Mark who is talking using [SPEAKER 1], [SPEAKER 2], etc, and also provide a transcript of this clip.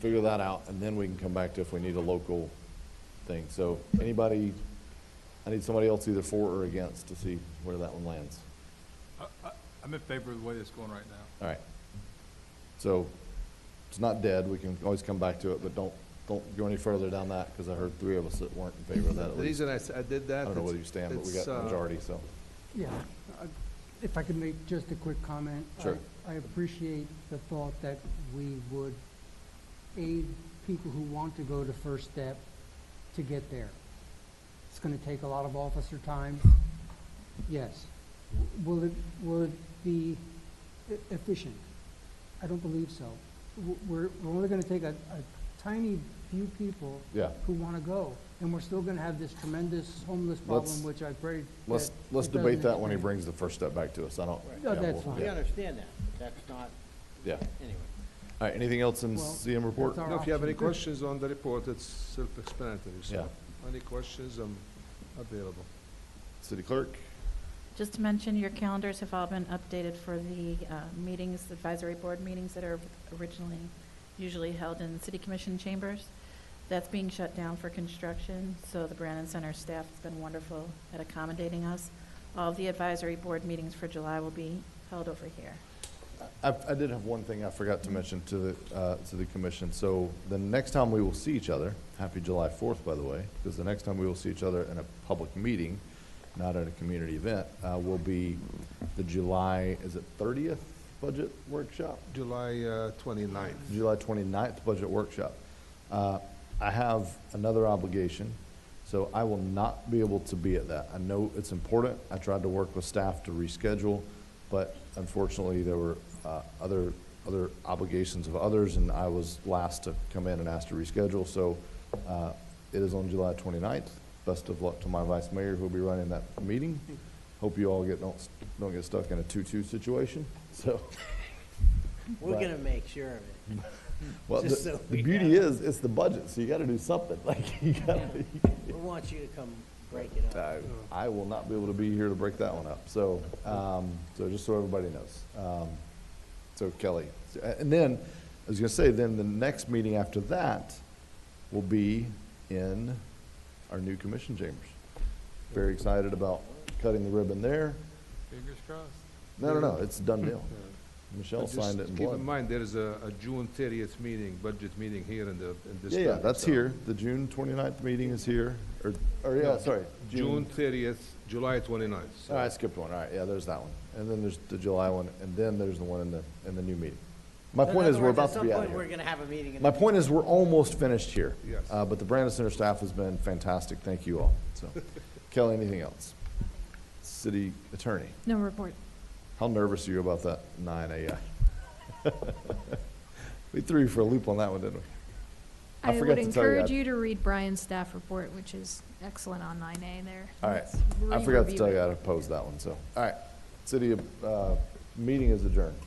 [SPEAKER 1] figure that out, and then we can come back to if we need a local thing. So anybody, I need somebody else either for or against to see where that one lands.
[SPEAKER 2] I- I- I'm in favor of the way it's going right now.
[SPEAKER 1] All right. So it's not dead, we can always come back to it, but don't, don't go any further down that, because I heard three of us that weren't in favor of that at
[SPEAKER 3] The
[SPEAKER 1] least.
[SPEAKER 3] reason I s- I did that.
[SPEAKER 1] I don't know
[SPEAKER 3] it's-
[SPEAKER 1] whether you stand, but we
[SPEAKER 3] it's,
[SPEAKER 1] got a
[SPEAKER 3] uh,
[SPEAKER 1] majority, so.
[SPEAKER 4] Yeah, I- if I could make just a quick comment. I-
[SPEAKER 1] Sure.
[SPEAKER 4] I appreciate the thought that we would aid people who want to go to First Step to get there. It's gonna take a lot of officer time, yes. W- Will it, will it be e- efficient? I don't believe so. W- We're, we're only gonna take a, a tiny few people
[SPEAKER 1] Yeah.
[SPEAKER 4] who wanna go, and we're still gonna have this tremendous homeless
[SPEAKER 1] Let's-
[SPEAKER 4] problem, which I pray
[SPEAKER 1] Let's,
[SPEAKER 4] that
[SPEAKER 1] let's
[SPEAKER 4] it doesn't
[SPEAKER 1] debate that when he
[SPEAKER 4] happen.
[SPEAKER 1] brings the first step back to us. I don't.
[SPEAKER 4] No,
[SPEAKER 1] yeah,
[SPEAKER 4] that's
[SPEAKER 1] we'll-
[SPEAKER 4] fine.
[SPEAKER 5] We
[SPEAKER 1] yeah,
[SPEAKER 5] understand that, but that's not,
[SPEAKER 1] Yeah.
[SPEAKER 5] anyway.
[SPEAKER 1] All right, anything else in
[SPEAKER 4] Well,
[SPEAKER 1] CM report?
[SPEAKER 4] that's our-
[SPEAKER 3] No, If you have any
[SPEAKER 4] Option three.
[SPEAKER 3] questions on the report, it's self-explanatory, so. Any questions, I'm available.
[SPEAKER 1] City clerk?
[SPEAKER 6] Just to mention, your calendars have all been updated for the uh, meetings, advisory board meetings that are originally usually held in city commission chambers. That's being shut down for construction, so the Brandon Center staff has been wonderful at accommodating us. All of the advisory board meetings for July will be held over here.
[SPEAKER 1] I, I did have one thing I forgot to mention to the, uh, to the commission. So the next time we will see each other, happy July fourth, by the way, because the next time we will see each other in a public meeting, not at a community event, uh, will be the July, is it thirtieth budget workshop?
[SPEAKER 3] July uh, 29th.
[SPEAKER 1] July 29th budget workshop. Uh, I have another obligation, so I will not be able to be at that. I know it's important. I tried to work with staff to reschedule, but unfortunately, there were uh, other, other obligations of others, and I was last to come in and ask to reschedule. So uh, it is on July 29th. Best of luck to my vice mayor who'll be running that meeting. Hope you all get, don't, don't get stuck in a 2-2 situation, so.
[SPEAKER 5] We're
[SPEAKER 1] Right.
[SPEAKER 5] gonna make sure of it.
[SPEAKER 1] Well,
[SPEAKER 5] Just
[SPEAKER 1] the,
[SPEAKER 5] so
[SPEAKER 1] the
[SPEAKER 5] we
[SPEAKER 1] beauty
[SPEAKER 5] know.
[SPEAKER 1] is, it's the budget, so you gotta do something, like, you gotta,
[SPEAKER 5] We want you to come break it up.
[SPEAKER 1] I, I will not be able to be here to break that one up, so, um, so just so everybody knows. Um, so Kelly, so- and then, I was gonna say, then the next meeting after that will be in our new commission chambers. Very excited about cutting the ribbon there.
[SPEAKER 2] Fingers crossed.
[SPEAKER 1] No, no, no, it's a done deal.
[SPEAKER 3] Uh,
[SPEAKER 1] Michelle
[SPEAKER 3] but
[SPEAKER 1] signed it
[SPEAKER 3] just
[SPEAKER 1] in
[SPEAKER 3] Keep in
[SPEAKER 1] blood.
[SPEAKER 3] mind, there is a a June 30th meeting, budget meeting here in the, in this
[SPEAKER 1] Yeah,
[SPEAKER 3] building.
[SPEAKER 1] yeah, that's
[SPEAKER 3] so-
[SPEAKER 1] here. The June 29th meeting is here, or, or, yeah, sorry.
[SPEAKER 3] June 30th, July 29th. so-
[SPEAKER 1] All right, I skipped one, all right, yeah, there's that one, and then there's the July one, and then there's the one in the, in the new meeting. My
[SPEAKER 5] In
[SPEAKER 1] point
[SPEAKER 5] other
[SPEAKER 1] is, we're
[SPEAKER 5] words,
[SPEAKER 1] about to be
[SPEAKER 5] At
[SPEAKER 1] out
[SPEAKER 5] some
[SPEAKER 1] of
[SPEAKER 5] point, we're
[SPEAKER 1] here.
[SPEAKER 5] gonna have a meeting. in
[SPEAKER 1] My
[SPEAKER 5] the-
[SPEAKER 1] point is, we're almost finished here.
[SPEAKER 3] Yes.
[SPEAKER 1] Uh, but the Brandon Center staff has been fantastic, thank you all, so. Kelly, anything else? City Attorney,
[SPEAKER 6] No report.
[SPEAKER 1] how nervous are you about that nine AI? We threw you for a loop on that one, didn't we? I
[SPEAKER 7] I
[SPEAKER 1] forgot
[SPEAKER 7] would
[SPEAKER 1] to tell you, I-
[SPEAKER 7] encourage you to read Brian's staff report, which is excellent on nine A there.
[SPEAKER 1] All right,
[SPEAKER 7] Let's
[SPEAKER 1] I forgot to
[SPEAKER 7] re-review
[SPEAKER 1] tell you
[SPEAKER 7] it.
[SPEAKER 1] I would opposed that one, so, all right. City, uh, meeting is adjourned.